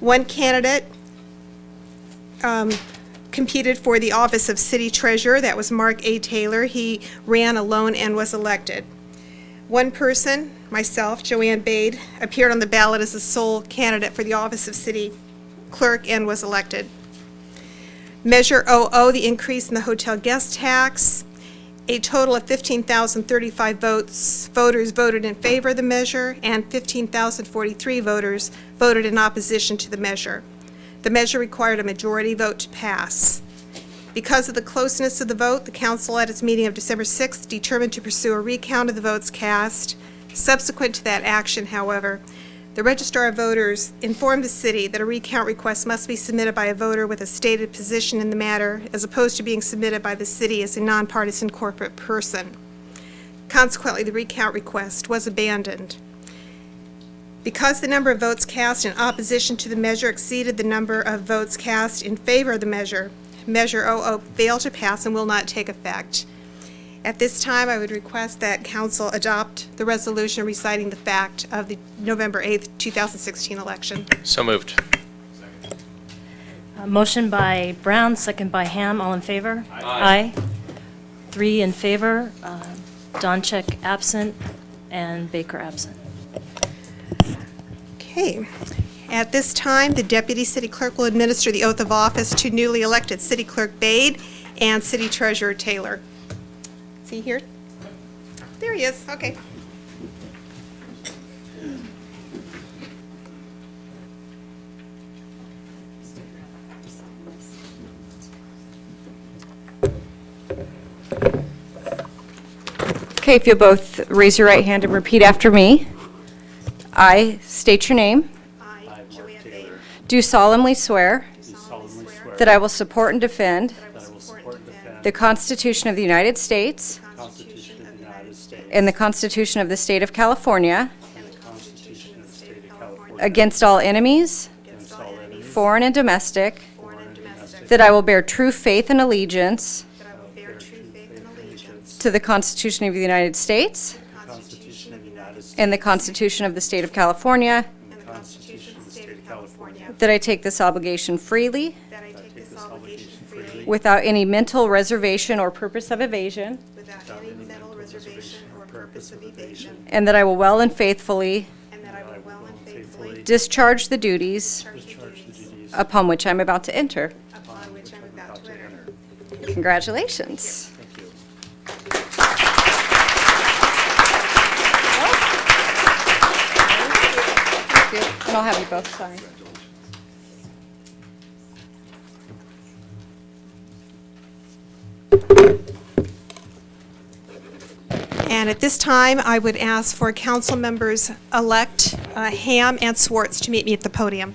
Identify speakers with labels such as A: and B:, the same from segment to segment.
A: One candidate um, competed for the office of city treasurer. That was Mark A. Taylor. He ran alone and was elected. One person, myself, Joanne Bade, appeared on the ballot as the sole candidate for the office of city clerk and was elected. Measure OO, the increase in the hotel guest tax. A total of 15,035 votes, voters voted in favor of the measure, and 15,043 voters voted in opposition to the measure. The measure required a majority vote to pass. Because of the closeness of the vote, the council at its meeting of December 6th determined to pursue a recount of the votes cast. Subsequent to that action, however, the registrar of voters informed the city that a recount request must be submitted by a voter with a stated position in the matter as opposed to being submitted by the city as a nonpartisan corporate person. Consequently, the recount request was abandoned. Because the number of votes cast in opposition to the measure exceeded the number of votes cast in favor of the measure, Measure 00 failed to pass and will not take effect. At this time, I would request that council adopt the resolution reciting the fact of the November 8th, 2016 election.
B: So moved.
C: Uh, Motion by Brown, second by Ham, all in favor? Aye. Three in favor, uh, Doncheck absent, and Baker absent.
A: Okay. At this time, the deputy city clerk will administer the oath of office to newly elected city clerk Bade and city treasurer Taylor. Is he here? There he is, okay.
D: Okay, if you'll both raise your right hand and repeat after me. I state your name.
A: I, Joanne Bade,
D: Do solemnly swear
E: Do solemnly swear
D: that I will support and defend
E: that I will support and defend
D: the Constitution of the United States
E: the Constitution of the United States
D: and the Constitution of the State of California
E: and the Constitution of the State of California
D: against all enemies,
E: against all enemies,
D: foreign and domestic,
A: foreign and domestic,
D: that I will bear true faith and allegiance
A: that I will bear true faith and allegiance
D: to the Constitution of the United States
A: to the Constitution
E: Constitution of the United States
D: and the Constitution of the State of California,
A: and the Constitution of the State of California,
D: that I take this obligation freely
A: that I take this obligation freely
D: without any mental reservation or purpose of evasion,
A: without any mental reservation or purpose of evasion,
D: and that I will well and faithfully
A: and that I will well and faithfully
D: Discharge the duties
A: discharge the duties
D: upon which I'm about to enter.
A: upon which I'm about to enter.
D: Congratulations. Thank you. And I'll have you both sign.
A: And at this time, I would ask for council members-elect uh, Ham and Swartz to meet me at the podium.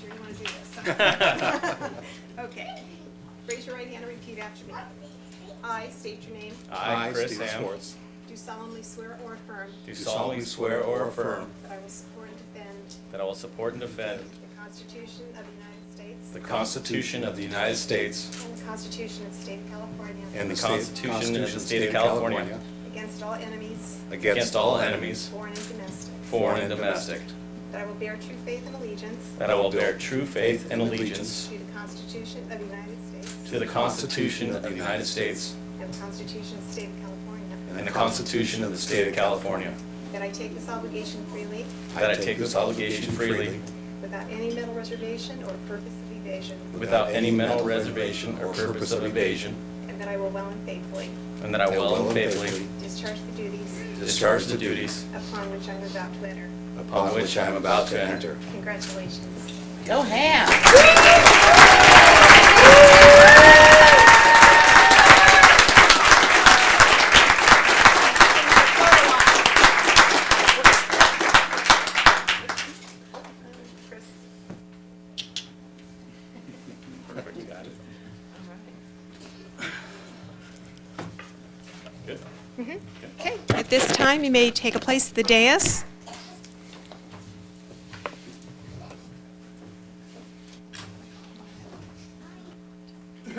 A: Sure you want to do this? Okay. Raise your right hand and repeat after me. I state your name.
B: I, Chris
F: Stephen
B: Ham,
F: Schwartz,
A: Do solemnly swear or affirm
B: do solemnly swear or affirm
A: that I will support and defend
B: that I will support and defend
A: the Constitution of the United States.
B: the Constitution of the United States
A: And the Constitution of the State of California.
B: and the
F: state-
B: Constitution of the State of California
A: Against all enemies,
B: against all enemies,
A: foreign and domestic.
B: foreign and domestic,
A: That I will bear true faith and allegiance
B: that I will bear true faith and allegiance
A: to the Constitution of the United States
B: to the Constitution of the United States
A: and the Constitution of the State of California.
B: and the Constitution of the State of California,
A: That I take this obligation freely
B: that I take this obligation freely
A: without any mental reservation or purpose of evasion.
B: without any mental reservation or purpose of evasion,
A: And that I will well and faithfully
B: and that I will and faithfully
A: discharge the duties
B: discharge the duties
A: upon which I'm about to enter.
B: upon which I am about to enter.
A: Congratulations.
G: Go ham.
A: Chris.
B: Perfect, you got it. Good.
A: Mm-hmm. Okay, at this time, you may take a place at the dais.